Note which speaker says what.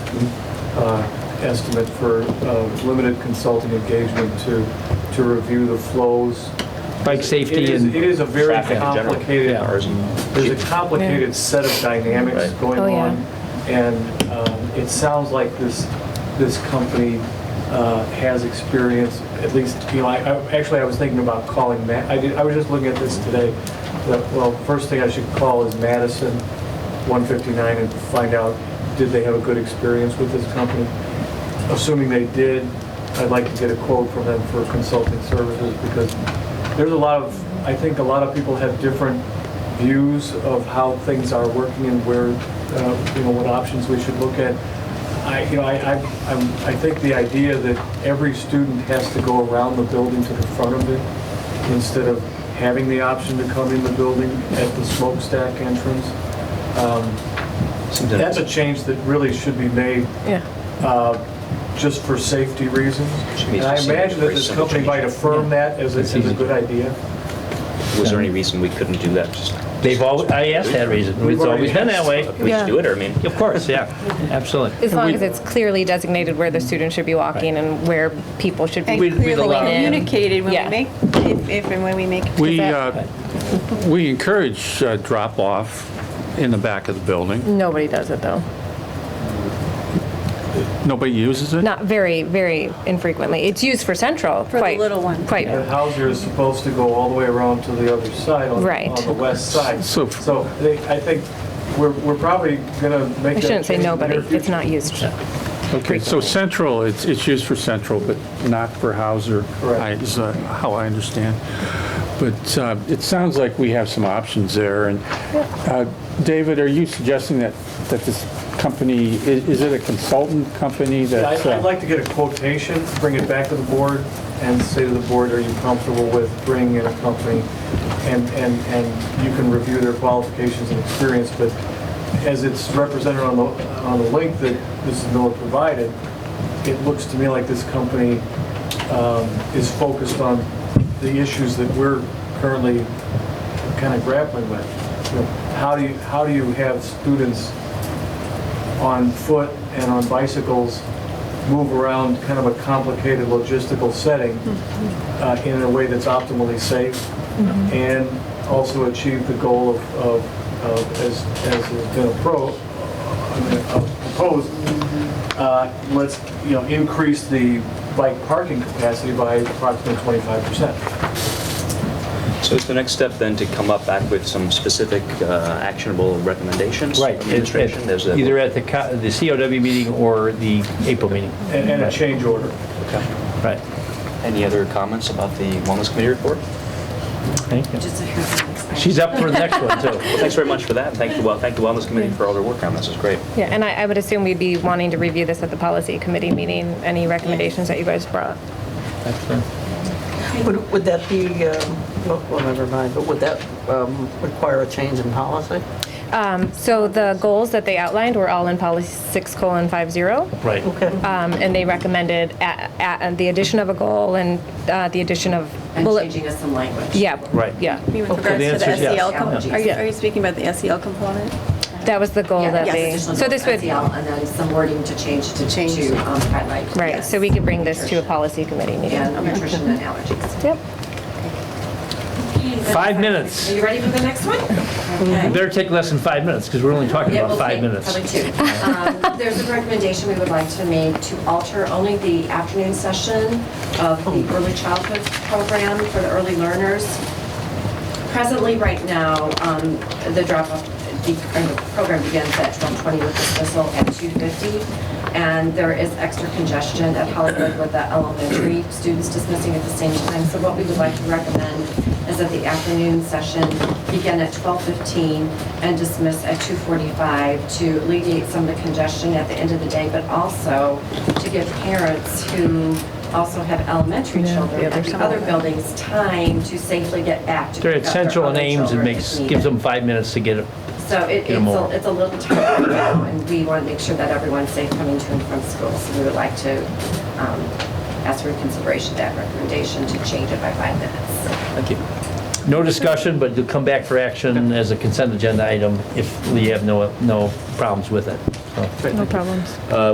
Speaker 1: uh, estimate for uh, limited consulting engagement to, to review the flows.
Speaker 2: Bike
Speaker 1: It
Speaker 2: safety
Speaker 1: is- It
Speaker 2: and,
Speaker 1: is a very
Speaker 3: Traffic in general.
Speaker 1: complicated,
Speaker 2: Yeah.
Speaker 1: there's a complicated set of dynamics
Speaker 3: Right.
Speaker 1: going
Speaker 4: Oh, yeah.
Speaker 1: on. And um, it sounds like this, this company uh, has experience, at least, you know, I, I- actually, I was thinking about calling Matt, I did, I was just looking at this today. that, Well, first thing I should call is Madison 159 and find out, did they have a good experience with this company? Assuming they did, I'd like to get a quote from them for consulting services because there's a lot of, I think a lot of people have different views of how things are working and where, uh, you know, what options we should look at. I, you know, I, I, I'm- I think the idea that every student has to go around the building to the front of it instead of having the option to come in the building at the smokestack entrance, um, that's a change that really should be made
Speaker 4: Yeah,
Speaker 1: uh, just for safety reasons.
Speaker 3: Should be
Speaker 1: And I
Speaker 3: simple,
Speaker 1: imagine that
Speaker 3: very
Speaker 1: this
Speaker 3: simple
Speaker 1: company
Speaker 3: change.
Speaker 1: might affirm that as a, as a good idea.
Speaker 3: Was there any reason we couldn't do that? Just
Speaker 2: they've always, I asked that reason,
Speaker 1: We've
Speaker 2: it's
Speaker 1: already
Speaker 2: always been that way.
Speaker 3: We just do it, or I mean,
Speaker 2: Of course, yeah, absolutely. And
Speaker 4: as long
Speaker 2: we-
Speaker 4: as it's clearly designated where the student should be walking and where people should be.
Speaker 2: We- we'd
Speaker 5: clearly
Speaker 2: allow-
Speaker 5: communicated when
Speaker 4: Yeah.
Speaker 5: we make, if if and when we make.
Speaker 6: We, uh, we encourage uh, drop-off in the back of the building.
Speaker 4: Nobody does it, though.
Speaker 6: Nobody uses it?
Speaker 4: Not very, very infrequently. It's used for Central,
Speaker 5: the
Speaker 4: quite.
Speaker 5: little ones.
Speaker 4: Quite,
Speaker 1: And Hauser is supposed to go all the way around to the other side, on,
Speaker 4: Right.
Speaker 1: on the west side.
Speaker 6: So-
Speaker 1: So they- I think we're, we're probably gonna make
Speaker 4: I
Speaker 1: that
Speaker 4: shouldn't say
Speaker 1: change in the
Speaker 4: nobody,
Speaker 1: near
Speaker 4: it's
Speaker 1: future.
Speaker 4: not used.
Speaker 6: Okay, so
Speaker 4: frequently.
Speaker 6: central, it's, it's used for central, but not for Hauser,
Speaker 1: Correct.
Speaker 6: I- is uh, how I understand. But uh, it sounds like we have some options there, and uh, David, are you suggesting that, that this company, i- is it a consultant company
Speaker 1: Yeah,
Speaker 6: that's?
Speaker 1: I- I'd
Speaker 6: uh,
Speaker 1: like to get a quotation, bring it back to the board, and say to the board, are you comfortable with bringing in a company? And, and, and you can review their qualifications and experience, but as it's represented on the, on the link that Mrs. Miller provided, it looks to me like this company um, is focused on the issues that we're currently kind of grappling with. You know, How do you, how do you have students on foot and on bicycles move around kind of a complicated logistical setting uh, in a way that's optimally safe and also achieve the goal of, of, of as, as has been appro, I mean, uh, proposed, uh, let's, you know, increase the bike parking capacity by approximately 25%.
Speaker 3: so it's the next step then to come up back with some specific uh, actionable recommendations?
Speaker 2: Right,
Speaker 3: from
Speaker 2: at-
Speaker 3: the Administration, there's
Speaker 2: at-
Speaker 3: a.
Speaker 2: either at the co- the COW meeting or the April meeting,
Speaker 1: And and a change order.
Speaker 2: right.
Speaker 3: Any other comments about the Wellness Committee report?
Speaker 2: Thank you. She's up for the next one, too.
Speaker 3: Well, thanks very much for that, and thank you, well, thank the Wellness Committee for all their work on this, it's great.
Speaker 4: Yeah, and I, I would assume we'd be wanting to review this at the policy committee meeting, any recommendations that you guys brought.
Speaker 7: Would, would that be, um, well, well, never mind, but would that um, require a change in policy?
Speaker 4: Um, So the goals that they outlined were all in policy six colon five zero.
Speaker 2: Right.
Speaker 4: Um, And they recommended a- a- the addition of a goal and uh, the addition of
Speaker 8: And
Speaker 4: bullet.
Speaker 8: changing us some language.
Speaker 4: Yeah.
Speaker 2: Right.
Speaker 4: Yeah.
Speaker 5: With
Speaker 2: So the
Speaker 5: regards to
Speaker 2: answer
Speaker 5: the
Speaker 2: is yes.
Speaker 5: SEL,
Speaker 8: Yeah.
Speaker 5: com- are you,
Speaker 4: Yeah.
Speaker 5: are you speaking about the SEL component?
Speaker 4: That was the goal
Speaker 8: Yeah,
Speaker 4: that
Speaker 8: yes,
Speaker 4: they,
Speaker 8: additional
Speaker 4: so this would,
Speaker 8: SEL, And then some wording to change to,
Speaker 5: Change.
Speaker 8: to um, highlight.
Speaker 4: right, so we could bring this to a
Speaker 8: Nutrition
Speaker 4: policy committee meeting.
Speaker 8: And nutrition and allergies.
Speaker 4: Yep.
Speaker 2: Five minutes.
Speaker 8: Are you ready for the next one? Okay.
Speaker 2: Better take less than five minutes, because we're only talking
Speaker 8: Yeah,
Speaker 2: about
Speaker 8: we'll
Speaker 2: five
Speaker 8: take
Speaker 2: minutes.
Speaker 8: Probably two. Um, There's a recommendation we would like to make to alter only the afternoon session of the
Speaker 2: Oh.
Speaker 8: early childhood program for the early learners. Presently, right now, um, the drop-off, the or the program begins at 12:20 with dismissal at 2:50. And there is extra congestion at Hollywood with the elementary students dismissing at the same time. So what we would like to recommend is that the afternoon session begin at 12:15 and dismiss at 2:45 to alleviate some of the congestion at the end of the day, but also to give parents who also have elementary children at the other buildings time to safely get back to
Speaker 2: They're at
Speaker 8: pick up their
Speaker 2: Central and
Speaker 8: other
Speaker 2: Ames, it
Speaker 8: children
Speaker 2: makes,
Speaker 8: if needed.
Speaker 2: gives them five minutes to get it.
Speaker 8: So it-
Speaker 2: get 'em
Speaker 8: it's a-
Speaker 2: over.
Speaker 8: it's a little tight right now, and we want to make sure that everyone's safe coming to and from school. So we would like to um, ask for consideration of that recommendation to change it by five minutes.
Speaker 3: Thank you.
Speaker 2: No discussion, but you'll come back for action as a consent agenda item if we have no, no problems with it. So,
Speaker 4: No problems.